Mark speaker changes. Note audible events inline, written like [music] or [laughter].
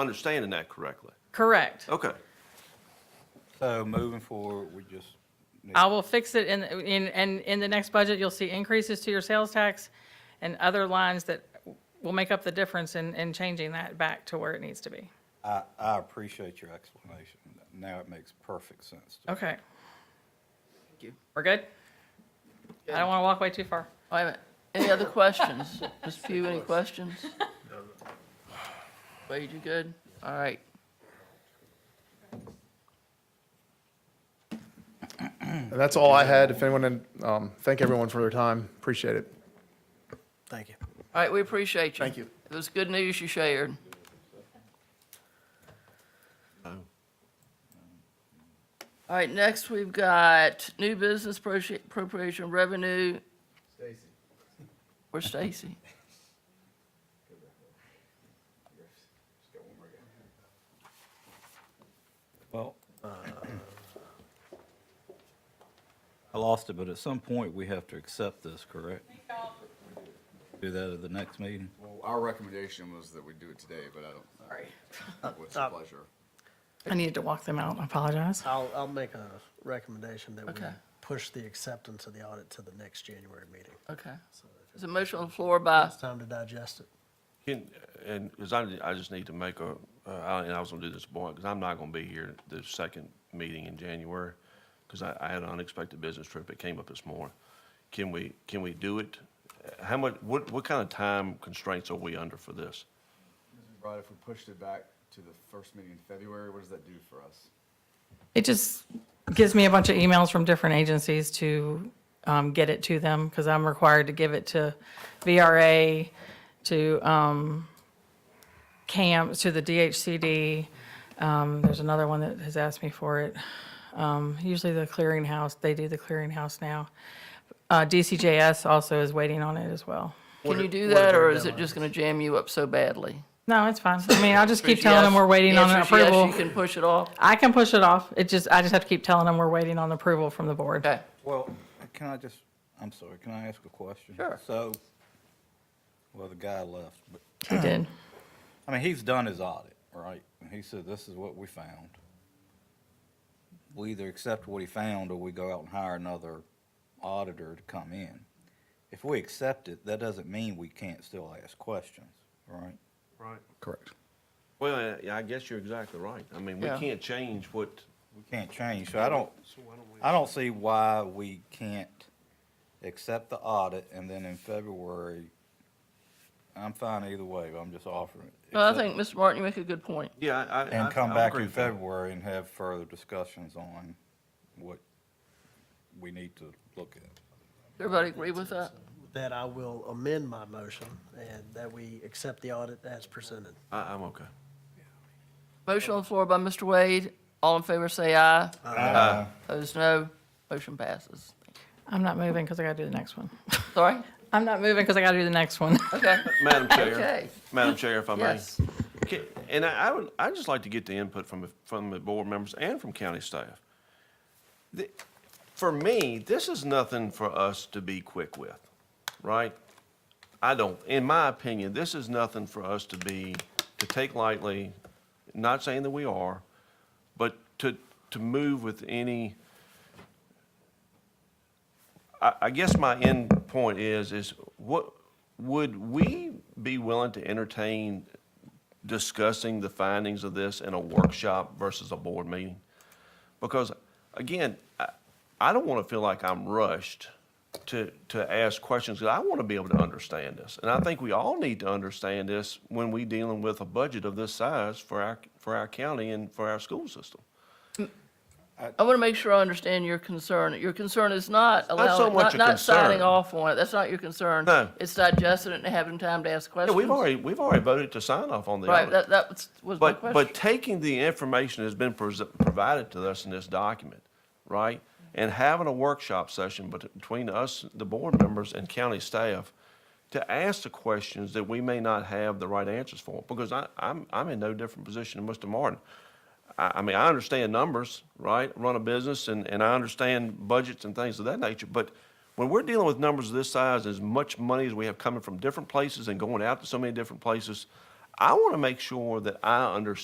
Speaker 1: understanding that correctly.
Speaker 2: Correct.
Speaker 1: Okay.
Speaker 3: So moving forward, we just, need-
Speaker 2: I will fix it in, in, and in the next budget, you'll see increases to your sales tax and other lines that will make up the difference in, in changing that back to where it needs to be.
Speaker 3: I, I appreciate your explanation. Now it makes perfect sense to me.
Speaker 2: Okay.
Speaker 4: you.
Speaker 2: We're good? I don't want to walk way too far.
Speaker 4: Wait a minute. Any other questions? Ms. Pugh, any questions? Wade, you good? All right.
Speaker 5: And that's all I had. If anyone, um, thank everyone for their time. Appreciate it.
Speaker 6: Thank you.
Speaker 4: All right, we appreciate you.
Speaker 6: Thank you.
Speaker 4: It was good news you shared. All right, next we've got new business appropri- appropriation revenue. Stacy. Where's Stacy?
Speaker 3: Well, uh, I lost it, but at some point, we have to accept this, correct? Do that at the next meeting?
Speaker 7: Well, our recommendation was that we do it today, but I don't, uh,
Speaker 2: Sorry.
Speaker 7: what's
Speaker 6: Uh,
Speaker 7: your pleasure?
Speaker 2: I needed to walk them out. I apologize.
Speaker 6: I'll, I'll make a recommendation that we
Speaker 4: Okay.
Speaker 6: push the acceptance of the audit to the next January meeting.
Speaker 4: Okay. There's a motion on the floor by,
Speaker 6: It's time to digest it.
Speaker 1: Can, and, because I, I just need to make a, uh, I- and I was gonna do this point, because I'm not gonna be here the second meeting in January, because I, I had an unexpected business trip, it came up this morning. Can we, can we do it? Uh, How much, what, what kind of time constraints are we under for this?
Speaker 7: Right, if we pushed it back to the first meeting in February, what does that do for us?
Speaker 2: It just gives me a bunch of emails from different agencies to um, get it to them because I'm required to give it to VRA, to um, CAMP, to the DHCD. Um, There's another one that has asked me for it. Um, Usually the clearinghouse, they do the clearinghouse now. Uh, DCJS also is waiting on it as well.
Speaker 4: can you do that, or is it just going to jam you up so badly?
Speaker 2: No, it's fine. I mean, I'll just keep telling them
Speaker 4: Yes.
Speaker 2: we're waiting on an
Speaker 4: Answer is yes,
Speaker 2: approval.
Speaker 4: You can push it off.
Speaker 2: I can push it off. It just, I just have to keep telling them we're waiting on approval from the board.
Speaker 4: Okay.
Speaker 3: Well, can I just, I'm sorry, can I ask a question?
Speaker 4: Sure.
Speaker 3: So, well, the guy left, but,
Speaker 2: He did.
Speaker 3: I mean, he's done his audit, right? And he said, this is what we found. We either accept what he found or we go out and hire another auditor to come in. If we accept it, that doesn't mean we can't still ask questions, right?
Speaker 1: Right.
Speaker 3: Correct.
Speaker 1: Well, uh, yeah, I guess you're exactly right. I mean, we
Speaker 4: Yeah.
Speaker 1: can't change what,
Speaker 3: We can't change, so I don't, I don't see why we can't accept the audit and then in February, I'm fine either way, but I'm just offering. it.
Speaker 4: Well, I
Speaker 3: Accept-
Speaker 4: think, Mr. Martin, you make a good point.
Speaker 1: yeah, I, I. I-
Speaker 3: And come
Speaker 1: I
Speaker 3: back
Speaker 1: agree
Speaker 3: in
Speaker 1: with that.
Speaker 3: February and have further discussions on what we need to look at.
Speaker 4: Everybody agree with that?
Speaker 6: With That I will amend my motion and that we accept the audit as presented.
Speaker 1: I, I'm okay.
Speaker 4: Motion on the floor by Mr. Wade. All in favor, say aye. Aye. Opposed, no. Motion passes.
Speaker 2: I'm not moving because I got to do the next one. [laughs]
Speaker 4: Sorry?
Speaker 2: I'm not moving because I got to do the next one. [laughs]
Speaker 4: Okay.
Speaker 1: Madam Chair,
Speaker 4: Okay.
Speaker 1: Madam Chair, if I may.
Speaker 4: Yes.
Speaker 1: Ca- And I, I would, I'd just like to get the input from, from the board members and from county staff. The- For me, this is nothing for us to be quick with, right? I don't, in my opinion, this is nothing for us to be, to take lightly, not saying that we are, but to, to move with any, I, I guess my end point is, is what, would we be willing to entertain discussing the findings of this in a workshop versus a board meeting? Because, again, I, I don't want to feel like I'm rushed to, to ask questions, because I want to be able to understand this. And I think we all need to understand this when we dealing with a budget of this size for our, for our county and for our school system.
Speaker 4: I want to make sure I understand your concern. Your concern is not
Speaker 1: so
Speaker 4: allowing,
Speaker 1: much
Speaker 4: not,
Speaker 1: a
Speaker 4: not signing
Speaker 1: concern.
Speaker 4: off on it. That's not your concern.
Speaker 1: No.
Speaker 4: It's digesting it and having time to ask
Speaker 1: Yeah,
Speaker 4: questions.
Speaker 1: we've already, we've already voted to sign off on the
Speaker 4: Right,
Speaker 1: audit.
Speaker 4: that, that was- was my
Speaker 1: But, but
Speaker 4: question.
Speaker 1: taking the information that's been pres- provided to us in this document, right? And having a workshop session bet- between us, the board members and county staff to ask the questions that we may not have the right answers for. Because I, I'm, I'm in no different position than Mr. Martin. I, I mean, I understand numbers, right? Run a business and, and I understand budgets and things of that nature. But when we're dealing with numbers of this size, as much money as we have coming from different places and going out to so many different places, I want to make sure that I understand